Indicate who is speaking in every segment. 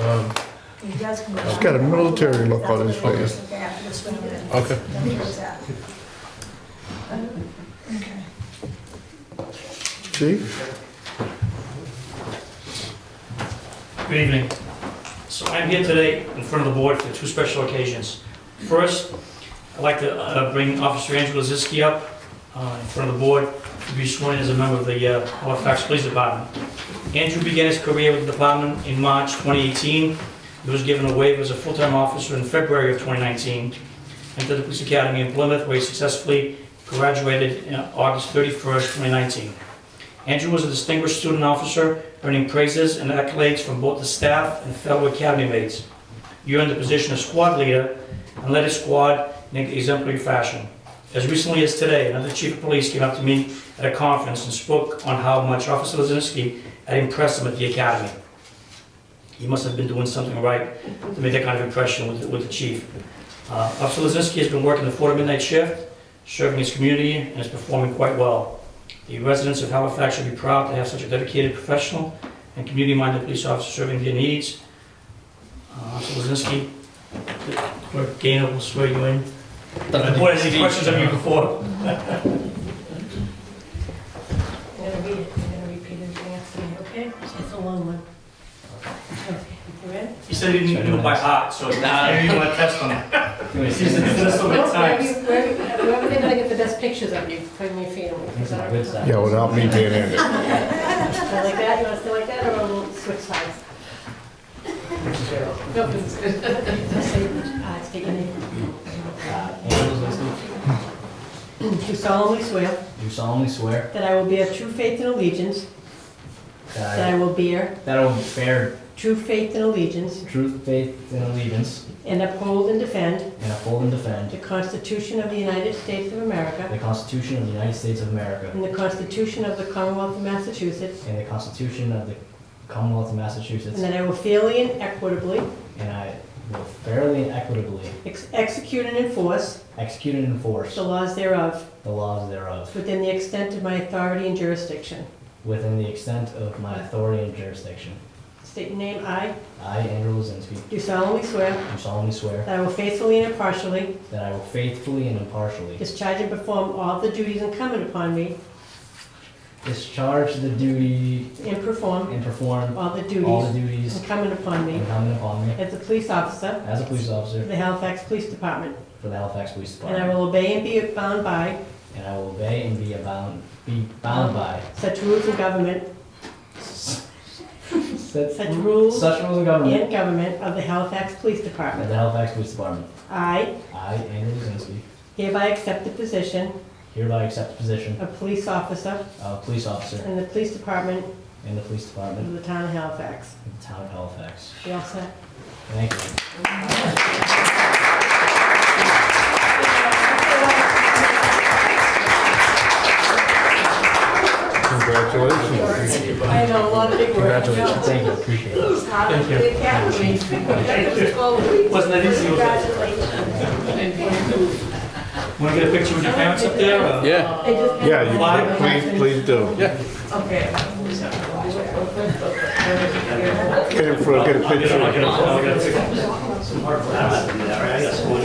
Speaker 1: Um,
Speaker 2: He does come
Speaker 3: He's got a military look on his face.
Speaker 1: Okay.
Speaker 3: Chief?
Speaker 4: Good evening. So I'm here today in front of the board for two special occasions. First, I'd like to uh, bring Officer Angela Ziski up uh, in front of the board to be sworn in as a member of the uh, Halifax Police Department. Andrew began his career with the department in March 2018. He was given a waiver as a full-time officer in February of 2019, entered the police academy in Plymouth, where he successfully graduated in August 31st, 2019. Andrew was a distinguished student officer earning praises and accolades from both the staff and fellow academy mates. You earned the position of squad leader and led his squad in exemplary fashion. As recently as today, another chief of police came up to me at a conference and spoke on how much Officer Lozinski had impressed him at the academy. He must have been doing something right to make that kind of impression with, with the chief. Uh, Officer Lozinski has been working the four to midnight shift, serving his community, and is performing quite well. The residents of Halifax should be proud to have such a dedicated professional and community-minded police officer serving their needs. Uh, Officer Lozinski, Clerk Gainer will swear you in. The board has any questions of you before?
Speaker 2: I'm gonna read it, I'm gonna repeat everything after me, okay? It's a long one. Okay, You ready?
Speaker 4: He said he didn't do it by heart, so now you want to test on it. He said he's done it so many
Speaker 2: Wherever you-
Speaker 4: times.
Speaker 2: Wherever wherever they're gonna get the best pictures of you, from your family.
Speaker 5: That's my good side.
Speaker 3: Yeah, without me being in it.
Speaker 2: Something like that, you wanna stay like that, or we'll switch sides? No, it's good. Say, uh, state your name.
Speaker 5: Angela Zelensky,
Speaker 2: Do solemnly swear
Speaker 5: Do solemnly swear
Speaker 2: that I will bear true faith and allegiance, that
Speaker 5: that
Speaker 2: I will bear
Speaker 5: I, that I will bear
Speaker 2: true faith and allegiance,
Speaker 5: true faith and allegiance
Speaker 2: and uphold and defend
Speaker 5: and uphold and defend
Speaker 2: the Constitution of the United States of America
Speaker 5: the Constitution of the United States of America
Speaker 2: and the Constitution of the Commonwealth of Massachusetts,
Speaker 5: and the Constitution of the Commonwealth of
Speaker 2: and
Speaker 5: Massachusetts,
Speaker 2: that I will fairly and equitably
Speaker 5: and I will fairly and equitably
Speaker 2: ex- execute and enforce
Speaker 5: execute and enforce
Speaker 2: the laws thereof
Speaker 5: the laws thereof
Speaker 2: within the extent of my authority and jurisdiction.
Speaker 5: within the extent of my authority and jurisdiction.
Speaker 2: State your name, I
Speaker 5: I, Andrew Lozinski,
Speaker 2: do solemnly swear
Speaker 5: do solemnly swear
Speaker 2: that I will faithfully and impartially
Speaker 5: that I will faithfully and impartially
Speaker 2: discharge and perform all the duties incumbent upon me
Speaker 5: discharge the duty
Speaker 2: and perform
Speaker 5: and perform
Speaker 2: all the
Speaker 5: all the
Speaker 2: duties
Speaker 5: duties
Speaker 2: incumbent upon me
Speaker 5: incumbent upon me
Speaker 2: as a police officer
Speaker 5: as a police officer
Speaker 2: of the Halifax Police Department,
Speaker 5: for the Halifax Police
Speaker 2: and
Speaker 5: Department.
Speaker 2: I will obey and be bound by
Speaker 5: And I will obey and be bound, be bound by
Speaker 2: such rules of government
Speaker 5: such
Speaker 2: Such rules.
Speaker 5: such rules of government
Speaker 2: and government of the Halifax Police
Speaker 5: of
Speaker 2: Department.
Speaker 5: the Halifax Police Department.
Speaker 2: I
Speaker 5: I, Andrew Lozinski,
Speaker 2: hereby accept the position
Speaker 5: hereby accept the position
Speaker 2: of police officer
Speaker 5: of police officer
Speaker 2: in the Police Department
Speaker 5: in the Police
Speaker 2: of
Speaker 5: Department
Speaker 2: the Town of Halifax.
Speaker 5: of the Town of Halifax.
Speaker 2: You all set?
Speaker 5: Thank you.
Speaker 3: Congratulations.
Speaker 2: I know a lot of big words.
Speaker 3: Congratulations.
Speaker 5: Thank you, appreciate it.
Speaker 2: He's hot at the academy.
Speaker 4: Wasn't that easy, was it? Want to get a picture with your parents up there? or-
Speaker 1: Yeah.
Speaker 3: Yeah, you can- please, please do.
Speaker 2: Okay.
Speaker 3: Get it for, get a
Speaker 4: I'll get a- I'll
Speaker 3: picture.
Speaker 4: get a- I'll get a picture. Some hard work. I'm not doing that, right? I got some work.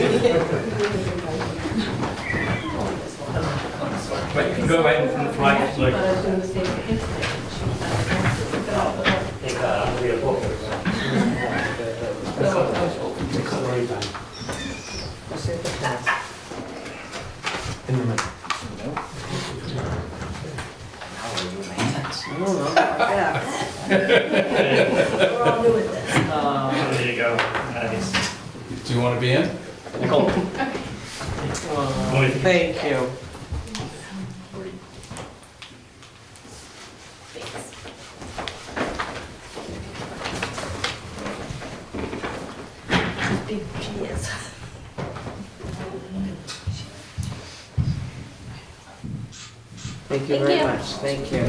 Speaker 4: But you can go right in front of the flag, it's like,
Speaker 2: But I was doing the same thing.
Speaker 4: Thank God, I'm gonna be a book. Takes a long time.
Speaker 2: We're all new at this.
Speaker 4: There you go. Nice.
Speaker 1: Do you want to be in?
Speaker 4: Only if you-
Speaker 6: Thank you.
Speaker 2: Big cheers.
Speaker 6: Thank you very much. Thank you.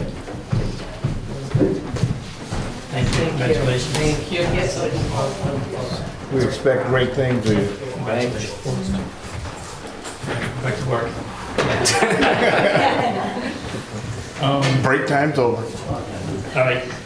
Speaker 4: Thank you, congratulations.
Speaker 6: Thank you. Yes.
Speaker 3: We expect great things of you.
Speaker 4: Back to work.
Speaker 3: Break time's over.
Speaker 4: All right,